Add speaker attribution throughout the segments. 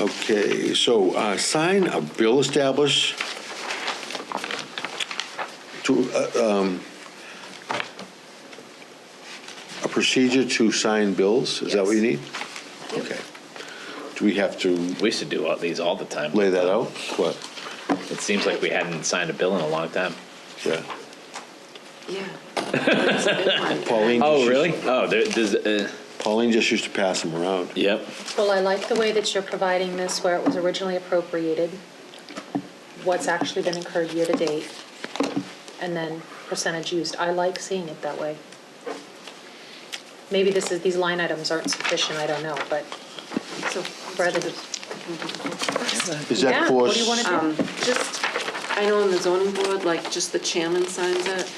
Speaker 1: Okay, so uh, sign a bill established to, uh, um, a procedure to sign bills, is that what you need? Okay. Do we have to
Speaker 2: We used to do all these all the time.
Speaker 1: lay that out? What?
Speaker 2: It seems like we hadn't signed a bill in a long time.
Speaker 1: Yeah.
Speaker 3: Yeah. That's a good one.
Speaker 1: Pauline. just
Speaker 2: Oh,
Speaker 1: used-
Speaker 2: really? Oh, there, there's, uh,
Speaker 1: Pauline just used to pass them around.
Speaker 2: yep.
Speaker 4: Well, I like the way that you're providing this where it was originally appropriated, what's actually been incurred year-to-date, and then percentage used. I like seeing it that way. Maybe this is, these line items aren't sufficient, I don't know, but
Speaker 3: So,
Speaker 4: rather than,
Speaker 1: Is
Speaker 4: Yeah,
Speaker 1: that for?
Speaker 4: what do you wanna do?
Speaker 3: um, just, I know on the zoning board, like, just the chairman signs it.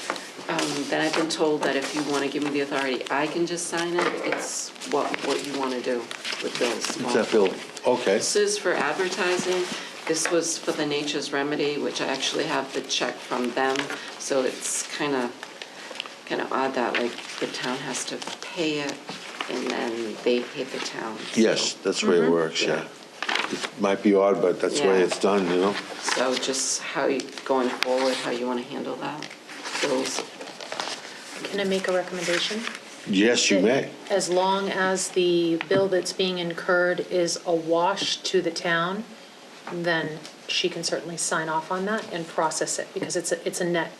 Speaker 3: Um, Then I've been told that if you want to give me the authority, I can just sign it. It's what, what you want to do with bills.
Speaker 1: Is that bill? Okay.
Speaker 3: This is for advertising. This was for the Nature's Remedy, which I actually have the check from them. So it's kind of, kind of odd that, like, the town has to pay it and then they pay the town.
Speaker 1: Yes, that's the way
Speaker 4: Mm-hmm.
Speaker 1: it works, yeah. It Might be odd, but that's the way
Speaker 3: Yeah.
Speaker 1: it's done, you know?
Speaker 3: So just how you, going forward, how you want to handle that, bills.
Speaker 4: can I make a recommendation?
Speaker 1: Yes, you may.
Speaker 4: As long as the bill that's being incurred is a wash to the town, then she can certainly sign off on that and process it, because it's, a it's a net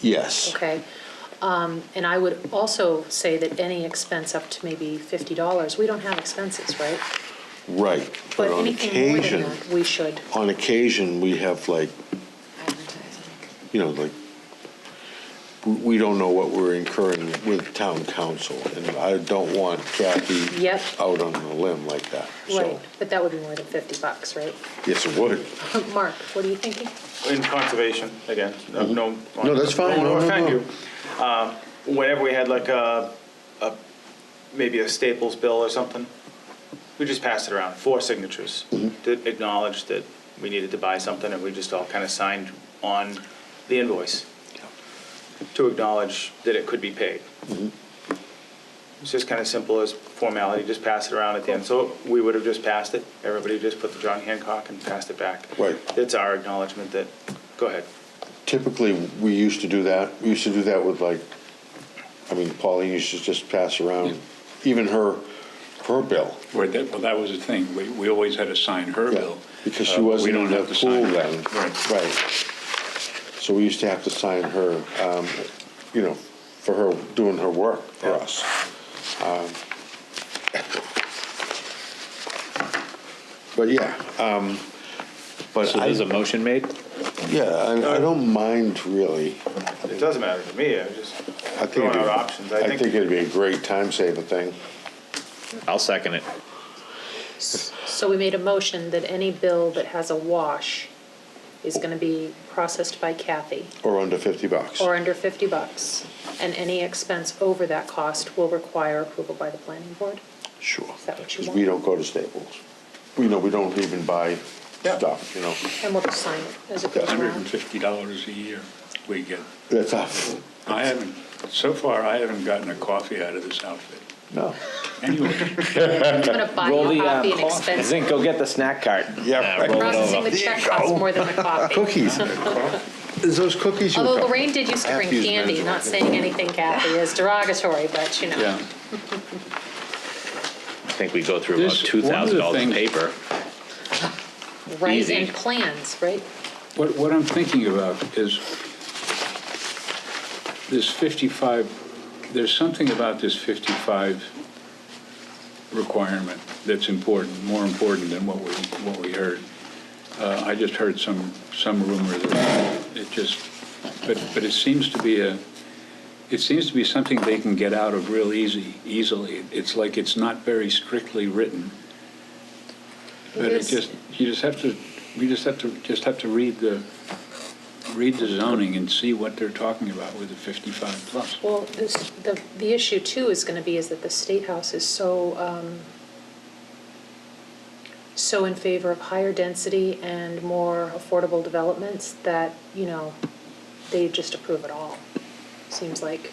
Speaker 1: Yes.
Speaker 4: Okay. Um, And I would also say that any expense up to maybe $50, we don't have expenses, right?
Speaker 1: Right. But on
Speaker 4: anything more than
Speaker 1: occasion,
Speaker 4: that, We should.
Speaker 1: on occasion, we have like,
Speaker 3: Advertising.
Speaker 1: you know, like, we- we don't know what we're incurring with town council, and I don't want Kathy
Speaker 4: Yep.
Speaker 1: out on a limb like that,
Speaker 4: Right,
Speaker 1: so.
Speaker 4: but that would be more than 50 bucks, right?
Speaker 1: Yes, it would.
Speaker 4: Mark, what are you thinking?
Speaker 5: in conservation, again, no, no.
Speaker 1: Mm-hmm. No, that's fine.
Speaker 5: Don't
Speaker 1: No,
Speaker 5: want
Speaker 1: no,
Speaker 5: to offend
Speaker 1: no.
Speaker 5: you. Um, Whenever we had like a, a, maybe a Staples bill or something, we just passed it around, four signatures to acknowledge that we needed to buy something, and we just all kind of signed on the invoice to acknowledge that it could be paid. It's just kind of simple as formality, just pass it around at the end. So we would have just passed it, everybody just put the John Hancock and passed it back.
Speaker 1: Right.
Speaker 5: It's our acknowledgement that, go ahead.
Speaker 1: Typically, we used to do that, we used to do that with like, I mean, Pauline used to just pass around, even her, her bill.
Speaker 6: Well, that, well, that was the thing, we, we always had to sign her
Speaker 1: Yeah,
Speaker 6: bill.
Speaker 1: Because
Speaker 6: Uh,
Speaker 1: she
Speaker 6: but we
Speaker 1: wasn't
Speaker 6: don't
Speaker 1: in the
Speaker 6: have to
Speaker 1: pool
Speaker 6: sign-
Speaker 1: then.
Speaker 6: Right.
Speaker 1: Right. So we used to have to sign her, um, you know, for her, doing her work for us. Um, But yeah, um, but
Speaker 2: So
Speaker 1: I,
Speaker 2: there's a motion made?
Speaker 1: yeah, I I don't mind really.
Speaker 5: It doesn't matter to me, I just
Speaker 1: I think
Speaker 5: throwing
Speaker 1: it'd
Speaker 5: out
Speaker 1: be-
Speaker 5: options.
Speaker 1: I think it'd be a great time saver thing.
Speaker 2: I'll second it.
Speaker 4: So we made a motion that any bill that has a wash is going to be processed by Kathy
Speaker 1: Or under 50 bucks.
Speaker 4: or under 50 bucks, and any expense over that cost will require approval by the planning board.
Speaker 1: Sure.
Speaker 4: Is that what you
Speaker 1: Because
Speaker 4: want?
Speaker 1: we don't go to Staples. We know, we don't even buy stuff, you know.
Speaker 4: And we'll just sign it as it goes
Speaker 6: Hundred and
Speaker 4: around.
Speaker 6: fifty dollars a year we get.
Speaker 1: That's us.
Speaker 6: I haven't, so far, I haven't gotten a coffee out of this outfit.
Speaker 1: No.
Speaker 6: Anyway,
Speaker 4: I'm going to buy
Speaker 2: Roll
Speaker 4: you a
Speaker 2: the, uh,
Speaker 4: copy and expense
Speaker 2: Zink, go get the snack cart.
Speaker 1: Yeah,
Speaker 2: Uh,
Speaker 1: right.
Speaker 2: roll it
Speaker 4: Processing
Speaker 2: over.
Speaker 4: the check costs more than the coffee.
Speaker 1: Cookies. Is those cookies? you-
Speaker 4: Although Lorraine did used to
Speaker 1: I have
Speaker 4: bring
Speaker 1: to use
Speaker 4: candy,
Speaker 1: men's
Speaker 4: not saying anything Kathy is derogatory, but you know.
Speaker 6: yeah.
Speaker 2: I think we go through about
Speaker 6: This- one of the
Speaker 2: $2,000 in
Speaker 6: things-
Speaker 2: paper.
Speaker 4: Right,
Speaker 2: Easy.
Speaker 4: and plans, right?
Speaker 6: What, what I'm thinking about is this 55, there's something about this 55 requirement that's important, more important than what we, what we heard. Uh, I just heard some, some rumor that it just, but, but it seems to be a, it seems to be something they can get out of real easy, easily. It's like it's not very strictly written. But it
Speaker 4: Because-
Speaker 6: just, you just have to, you just have to, just have to read the, read the zoning and see what they're talking about with the 55 plus.
Speaker 4: Well, this, the, the issue too is gonna be is that the State House is so, um, so in favor of higher density and more affordable developments that, you know, they just approve it all, seems like.